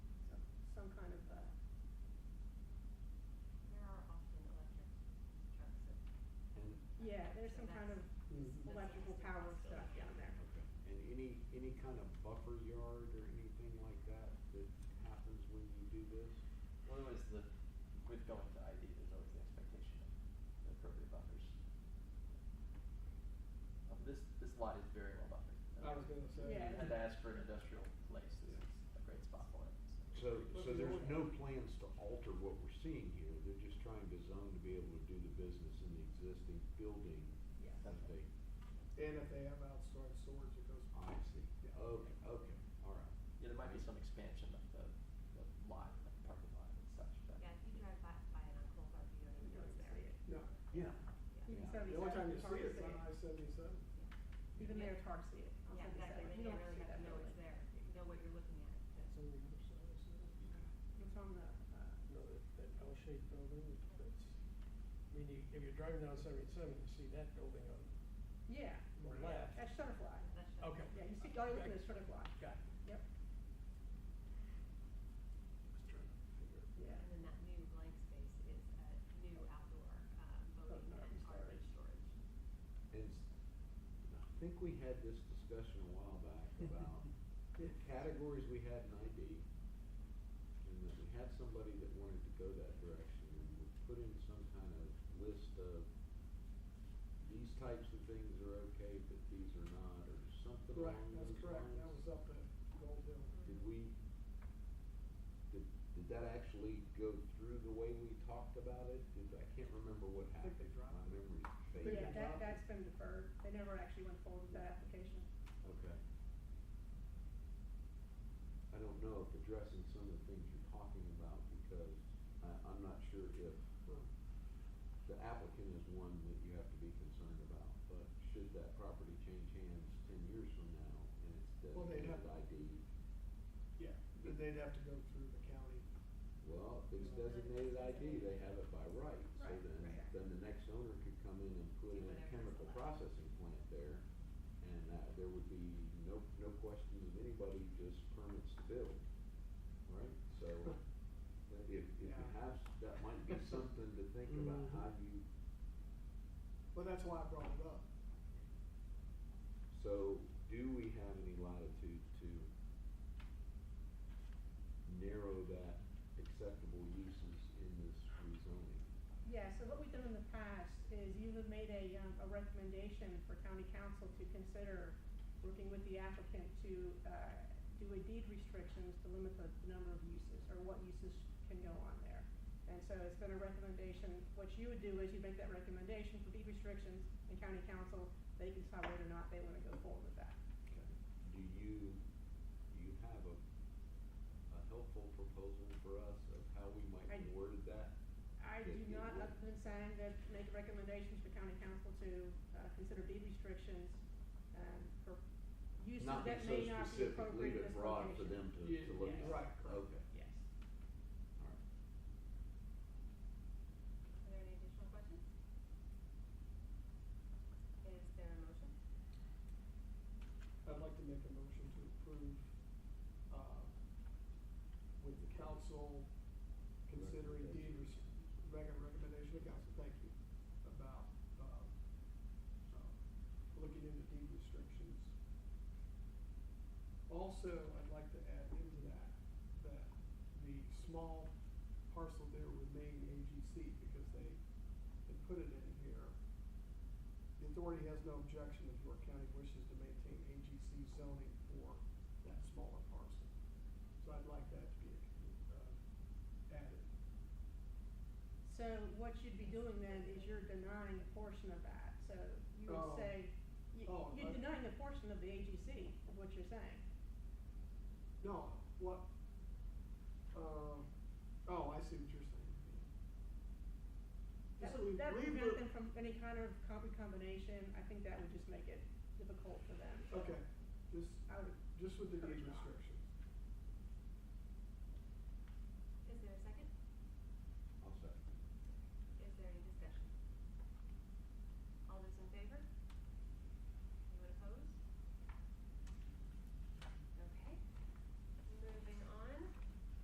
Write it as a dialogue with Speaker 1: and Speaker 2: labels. Speaker 1: uh, Yeah, there's some kind of
Speaker 2: Mm.
Speaker 1: electrical power stuff down there.
Speaker 3: Okay. And any, any kind of buffer yard or anything like that that happens when you do this?
Speaker 4: Well, there was the, with going to ID, there's always the expectation of the appropriate buffers. Um, This, this lot is very well buffered.
Speaker 2: I was gonna say.
Speaker 1: Yeah.
Speaker 4: And to ask for an industrial place, this is a great spot for it.
Speaker 3: So, so there's no plans to alter what we're seeing here, they're just trying to zone to be able to do the business in the existing building
Speaker 1: Yeah.
Speaker 3: that they,
Speaker 2: And if they have outside storage, it goes.
Speaker 3: I see. Okay, okay, all right.
Speaker 4: Yeah, there might be some expansion of the, the lot, the parking lot and such, but.
Speaker 5: Yeah, if you drive by, by it on Cold Harbor, you don't even know it's there.
Speaker 2: No,
Speaker 3: Yeah,
Speaker 1: You can
Speaker 3: Yeah.
Speaker 1: sell these
Speaker 2: the
Speaker 1: out
Speaker 2: only time
Speaker 1: to
Speaker 2: you see it is on
Speaker 1: Target.
Speaker 2: I-77.
Speaker 1: Even their Target see it. on
Speaker 5: Yeah, exactly,
Speaker 1: 77.
Speaker 5: then
Speaker 1: You
Speaker 5: you
Speaker 1: don't
Speaker 5: really
Speaker 1: see
Speaker 5: have to
Speaker 1: that
Speaker 5: know
Speaker 1: building.
Speaker 5: it's there, know what you're looking at.
Speaker 6: on the other side, so,
Speaker 1: It's on the, uh,
Speaker 6: you know, that, that L-shaped building, that's, I mean, you- if you're driving down seventy-seven, you see that building on
Speaker 1: yeah,
Speaker 6: the left.
Speaker 1: that's Shutterfly.
Speaker 5: That's just-
Speaker 6: Okay.
Speaker 1: Yeah, you see, all you're looking at is Shutterfly.
Speaker 6: Got it.
Speaker 1: Yep,
Speaker 6: Just trying to figure it.
Speaker 1: yeah.
Speaker 5: And then that new blank space is a new outdoor um, boating
Speaker 1: Boating
Speaker 5: and
Speaker 1: storage.
Speaker 5: RV storage.
Speaker 3: and s- I think we had this discussion a while back about the categories we had in ID. And that we had somebody that wanted to go that direction and we put in some kind of list of these types of things are okay, but these are not, or something
Speaker 2: Right,
Speaker 3: along
Speaker 2: that's
Speaker 3: those
Speaker 2: correct. That
Speaker 3: lines.
Speaker 2: was up at Gold Hill.
Speaker 3: Did we, did, did that actually go through the way we talked about it? Did, I can't remember what
Speaker 2: I
Speaker 3: happened.
Speaker 2: think they dropped
Speaker 3: My
Speaker 2: it.
Speaker 3: memory's
Speaker 2: They
Speaker 1: Yeah,
Speaker 3: fading.
Speaker 1: that,
Speaker 2: dropped it.
Speaker 1: that's been deferred. They never actually went forward with that application.
Speaker 3: Okay. I don't know if addressing some of the things you're talking about because I, I'm not sure if
Speaker 2: Well,
Speaker 3: the applicant is one that you have to be concerned about. But should that property change hands ten years from now and it's
Speaker 2: Well, they'd have-
Speaker 3: designated ID?
Speaker 2: Yeah, but they'd have to go through the county.
Speaker 3: Well, if it's designated ID, they have it by right, so
Speaker 1: Right,
Speaker 3: then,
Speaker 1: right.
Speaker 3: then the next owner could come in and put
Speaker 5: Do
Speaker 3: in a
Speaker 5: whatever's
Speaker 3: chemical
Speaker 5: allowed.
Speaker 3: processing plant there, and that, there would be no, no questions of anybody, just permits to build, right? So, if, if you
Speaker 2: Yeah.
Speaker 3: have, that might be something to think about, how you,
Speaker 2: Well, that's why I brought it up.
Speaker 3: so, do we have any latitude to narrow that acceptable uses in this rezoning?
Speaker 1: Yeah, so what we've done in the past is you have made a, um, a recommendation for county council to consider working with the applicant to, uh, do a deed restrictions to limit the the number of uses or what uses can go on there. And so it's been a recommendation, what you would do is you make that recommendation for deed restrictions and county council, they can decide whether or not they want to go forward with that.
Speaker 3: Okay. Do you, do you have a, a helpful proposal for us of how we
Speaker 1: I-
Speaker 3: might word that?
Speaker 1: I do not, other than saying that make recommendations for county council to uh, consider deed restrictions um, for uses
Speaker 3: Not be
Speaker 1: that
Speaker 3: so
Speaker 1: may not be
Speaker 3: specific,
Speaker 1: appropriate
Speaker 3: leave
Speaker 1: in this
Speaker 3: it broad for them
Speaker 1: location.
Speaker 3: to,
Speaker 2: Yeah,
Speaker 3: to look
Speaker 1: yes.
Speaker 3: at.
Speaker 2: Right, correct.
Speaker 3: Okay,
Speaker 1: Yes.
Speaker 3: all right.
Speaker 5: Are there any additional questions? Is there a motion?
Speaker 2: I'd like to make a motion to approve uh, with the council considering deed, res- rec- recommendation of council, thank you, about uh, uh, looking into deed restrictions. Also, I'd like to add into that, that the small parcel there remain AGC because they, they put it in here. The authority has no objection if York County wishes to maintain AGC zoning for that smaller parcel. So I'd like that to be uh, added.
Speaker 1: So what you'd be doing then is you're denying a portion of that. So you would
Speaker 2: Oh.
Speaker 1: say, you-
Speaker 2: Oh,
Speaker 1: you're
Speaker 2: I-
Speaker 1: denying a portion of the AGC, is what you're saying.
Speaker 2: No, what, uh, oh, I see what you're saying.
Speaker 1: That
Speaker 2: So
Speaker 1: would,
Speaker 2: we
Speaker 1: that would
Speaker 2: leave
Speaker 1: prevent
Speaker 2: the-
Speaker 1: them from any kind of comp- combination. I think that would just make it difficult for them.
Speaker 2: Okay, just,
Speaker 1: I would
Speaker 2: just with the
Speaker 1: Coverage
Speaker 2: deed
Speaker 1: not.
Speaker 2: restrictions.